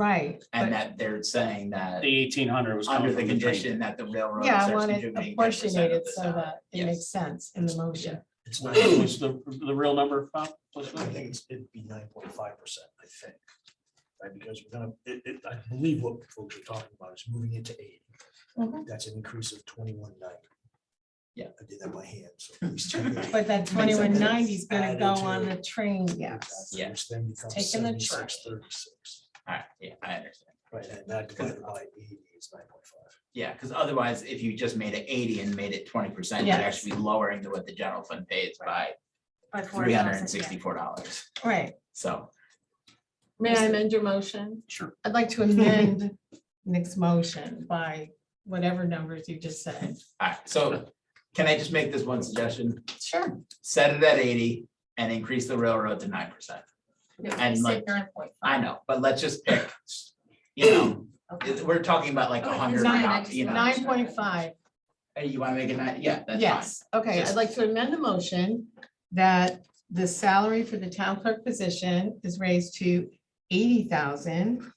right. and but- that they're saying that The eighteen hundred was coming under the from the condition trade. that the railroad. Yeah, I starts want it contributing 10% of apportionated the so salary. that it Yes. makes sense in the motion. It's What's nine, The, the real number, Bob? I What's that? think it's, it'd be nine point five percent, I think. Right, because we're gonna, it, it, I believe what folks are talking about is moving into eight. Mhm. That's an increase of twenty-one ninety. Yeah. I did that by hand, so. at least 290. But that sense. twenty-one ninety is gonna go Added on to- the train, yes. Exactly, Yeah. Which then becomes Taking the train. seventy-six thirty-six, All right, yeah, I understand. right, and that divided by eighty is nine point five. Yeah, because otherwise, if you just made it eighty and made it twenty percent, you'd Yes. actually be lowering the- what the general fund pays by By four three hundred and thousand, yeah. sixty-four dollars. Right. So, May I amend your motion? Sure. I'd like to amend Nick's motion by whatever numbers you just said. all right, so can I just make this one suggestion? Sure. Set it at eighty and increase the railroad to nine percent. No, And I like- said nine point I five. know, but let's just pick, you know, Okay. it- we're talking about like a Okay, hundred, nine, dollars, you know. Nine point five, Hey, You want to make it nine? Yeah, that's fine. yes. Okay, I'd like to amend the motion that the salary for the town clerk position is raised to eighty thousand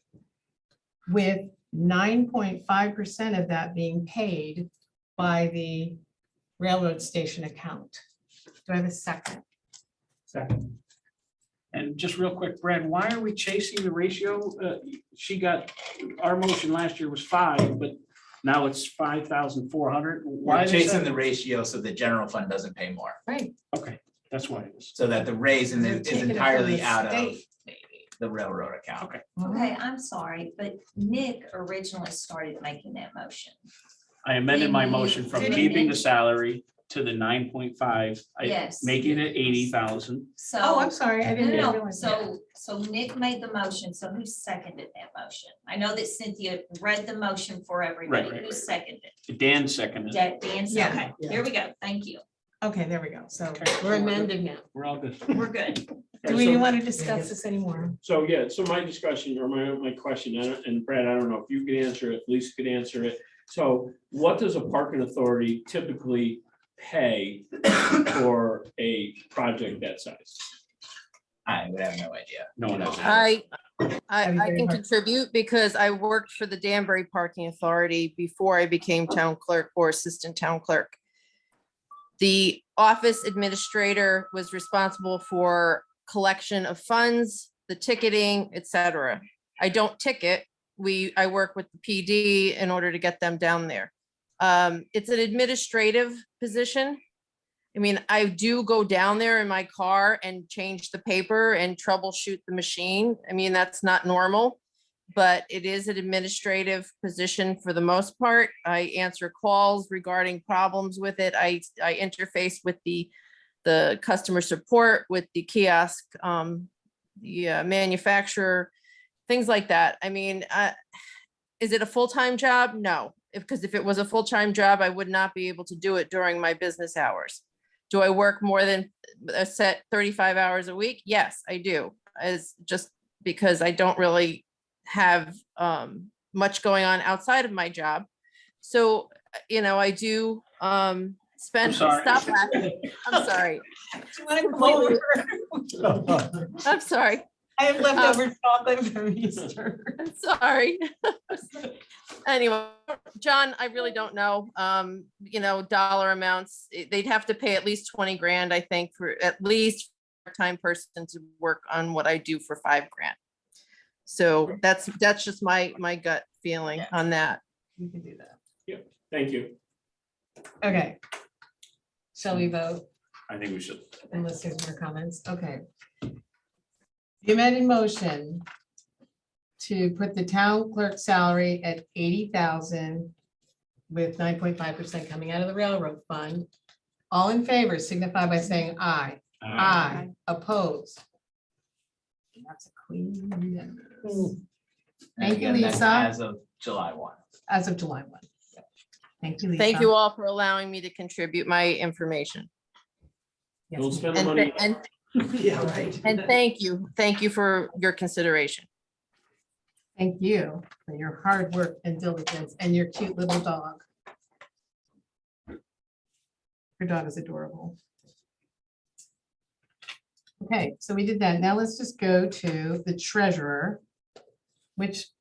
with nine point five percent of that being paid by the railroad station account. Do I have a second? Second. And just real quick, Brad, why are we chasing the ratio? Uh, She got, our motion last year was five, but now it's five thousand four hundred. Why We're is chasing that? the ratio so the general fund doesn't pay more, Okay, that's why it is. so that the raise in They're the- is taking it from entirely the out of state, maybe. the railroad account. Okay, Uh-huh. I'm sorry, but Nick originally started making that motion. I amended my motion from Did you keeping the amend? salary to the nine point five. Yes. Making it eighty thousand. So. Oh, I'm sorry, I No, didn't no, no. realize. that. so, so Nick made the motion, so who seconded that motion? I know that Cynthia read the motion for right, everybody, right, who right. seconded? Dan seconded. it. Da- Dan, Yeah. okay, there we go, thank you, Okay, there we go. So We're amending now. We're all good. we're good. do Okay, we so- want to discuss this anymore? So, yeah, so my discussion or my, my question, I don't- and Brad, I don't know if you could answer it, Lisa could answer it. So what does a parking authority typically pay for a project that size? I would have no idea. Oh, No one else. I, I, That'd be I very can hard. contribute because I worked for the Danbury Parking Authority before I became town clerk or assistant town clerk. The office administrator was responsible for collection of funds, the ticketing, et cetera. I don't ticket. We, I work with the PD in order to get them down there. Um, it's an administrative position. I mean, I do go down there in my car and change the paper and troubleshoot the machine. I mean, that's not normal. But it is an administrative position for the most part. I answer calls regarding problems with it. I, I interface with the, the customer support, with the kiosk, um, the uh, manufacturer, things like that. I mean, uh, is it a full-time job? No, if, because if it was a full-time job, I would not be able to do it during my business hours. Do I work more than a set thirty-five hours a week? Yes, I do. As just because I don't really have um much going on outside of my job. So, uh, you know, I do um spend, sorry. stop laughing. I'm sorry. Completely- I'm sorry. I have leftover chocolate from Easter. I'm sorry. Anyway, John, I really don't know. Um, you know, dollar amounts, eh, they'd have to pay at least twenty grand, I think, for at least for a time person to work on what I do for five grand. So that's, that's just my, my gut feeling Yeah. on that. You can do that. Thank you. Okay. Shall we vote I think we should. unless there's more comments? Okay. The amended motion to put the town clerk salary at eighty thousand with nine point five percent coming out of the railroad fund. All in favor signify by saying aye. Uh, Ah, Aye. Opposed. That's a clean unanimous. And Thank you, again, that's Lisa. As of July one. As of July one. Thank you. Thank Lisa. you all for allowing me to contribute my information. Yes, Don't ma'am. spend the And, money. th- and, Yeah, right. and thank you, thank you for your consideration. Thank you for your hard work and diligence and your cute little dog. Your dog is adorable. Okay, so we did that. Now let's just go to the treasurer. which